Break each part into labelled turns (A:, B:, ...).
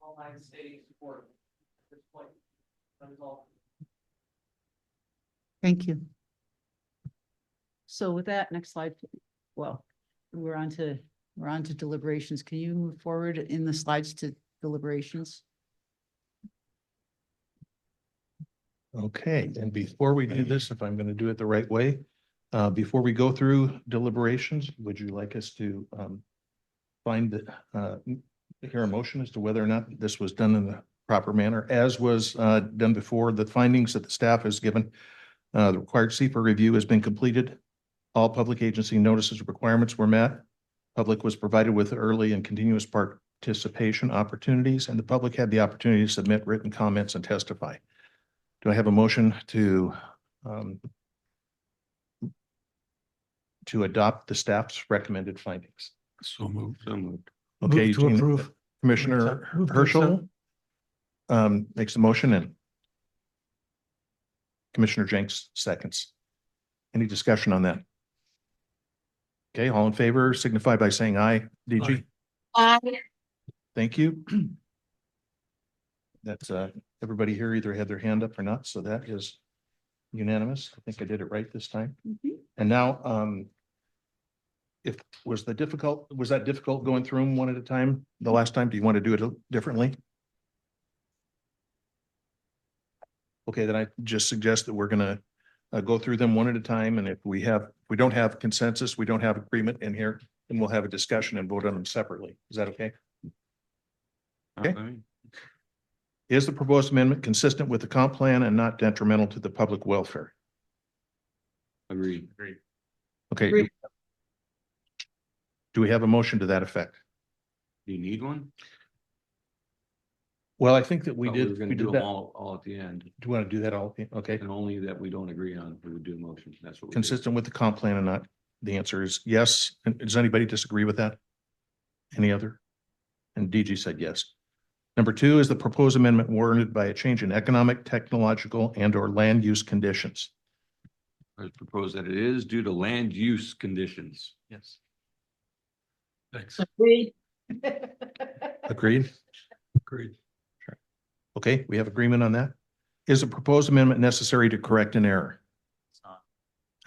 A: online stay support at this point. That is all.
B: Thank you. So with that, next slide, please. well, we're on to, we're on to deliberations. Can you move forward in the slides to deliberations?
C: Okay, and before we do this, if I'm going to do it the right way, uh, before we go through deliberations, would you like us to um, find, the, uh, hear a motion as to whether or not this was done in the proper manner, as was uh, done before, the findings that the staff has given, uh, the required CFA review has been completed, all public agency notices requirements were met, public was provided with early and continuous participation opportunities, and the public had the opportunity to submit written comments and testify. Do I have a motion to um to adopt the staff's recommended findings?
D: So moved. So moved.
C: Okay,
D: Move to
C: Jean-
D: approve.
C: Commissioner
D: Move to
C: Herschel
D: accept.
C: um makes the motion and Commissioner Jenks seconds. Any discussion on that? Okay, all in favor signify by saying aye. DG,
D: Aye.
B: Aye.
C: thank you. That's uh, everybody here either had their hand up or not, so that is unanimous. I think I did it right this time. And now, um, if, was the difficult, was that difficult going through them one at a time the last time? Do you want to do it differently? Okay, then I just suggest that we're gonna, uh, go through them one at a time, and if we have, we don't have consensus, we don't have agreement in here, then we'll have a discussion and vote on them separately. Is that okay? Okay. Is the proposed amendment consistent with the comp plan and not detrimental to the public welfare?
D: Agreed. Agreed.
C: Okay.
B: Agreed.
C: Do we have a motion to that effect?
D: Do you need one?
C: Well, I think that we
D: Thought
C: did,
D: were
C: we
D: gonna do
C: did
D: them
C: that.
D: all, all at the end,
C: Do you want to do that all? Okay,
D: and only that we don't agree on, we would do a motion, that's what. we do.
C: consistent with the comp plan or not? The answer is yes. And does anybody disagree with that? Any other? And DG said yes. Number two, is the proposed amendment warranted by a change in economic, technological and or land use conditions?
D: I propose that it is due to land use conditions. Yes. Thanks,
C: Agreed?
D: agreed.
C: Okay, we have agreement on that. Is the proposed amendment necessary to correct an error?
E: It's not.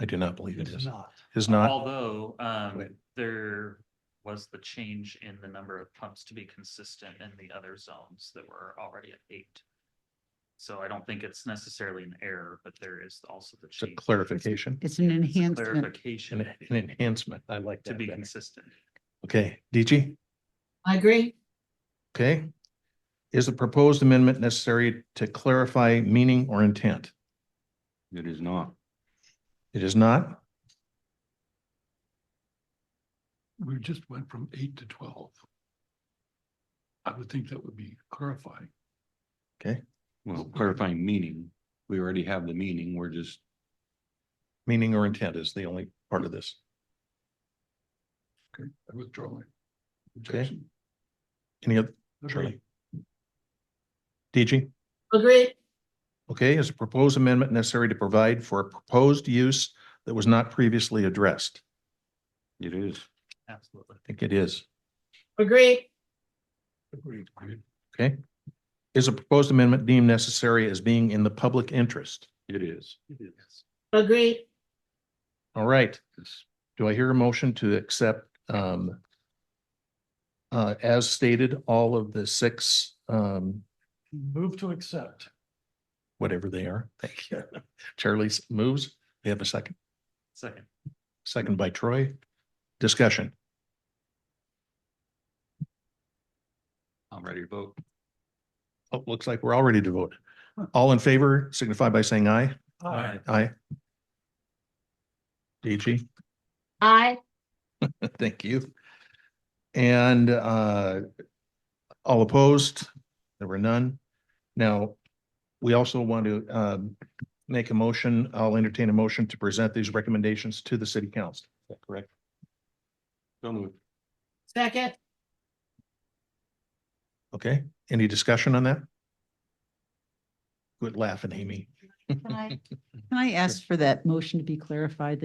C: I do not believe it is.
E: not.
C: Is not,
E: Although, um,
C: Wait.
E: there was the change in the number of pumps to be consistent in the other zones that were already at eight. So I don't think it's necessarily an error, but there is also the
C: it's a
E: change.
C: clarification,
B: It's an
E: It's a
B: enhancement.
C: an
E: Clarification
C: an enhancement. I like
E: to
C: that.
E: be
C: better.
E: consistent.
C: Okay, DG?
B: I agree.
C: Okay. Is the proposed amendment necessary to clarify meaning or intent?
D: It is not.
C: It is not.
F: we just went from eight to twelve. I would think that would be clarifying.
D: Well, clarifying meaning, we already have the meaning, we're just,
C: Meaning or intent is the only part of this.
F: Okay, I withdraw my objection.
C: Any other,
F: Okay.
C: Charlie? DG?
B: Agree.
C: Okay, is the proposed amendment necessary to provide for a proposed use that was not previously addressed?
D: it is.
E: Absolutely.
C: I think it is.
B: Agree.
F: Agreed, agreed.
C: Okay. Is a proposed amendment deemed necessary as being in the public interest?
D: It is.
B: Agree.
C: All right. Do I hear a motion to accept um uh as stated, all of the six um
F: Move to accept.
C: whatever they are. Thank you. Charlie's moves. We have a second,
E: Second,
C: second by Troy. Discussion.
D: I'm ready to vote.
C: Oh, looks like we're all ready to vote. All in favor signify by saying aye.
F: Aye.
C: Aye. DG,
B: Aye.
C: thank you. And uh all opposed, there were none. Now, we also want to um make a motion, I'll entertain a motion to present these recommendations to the city council. Is that correct?
D: So moved.
B: Second.
C: Okay, any discussion on that? Good laughing, Amy.
B: Can I ask for that motion to be clarified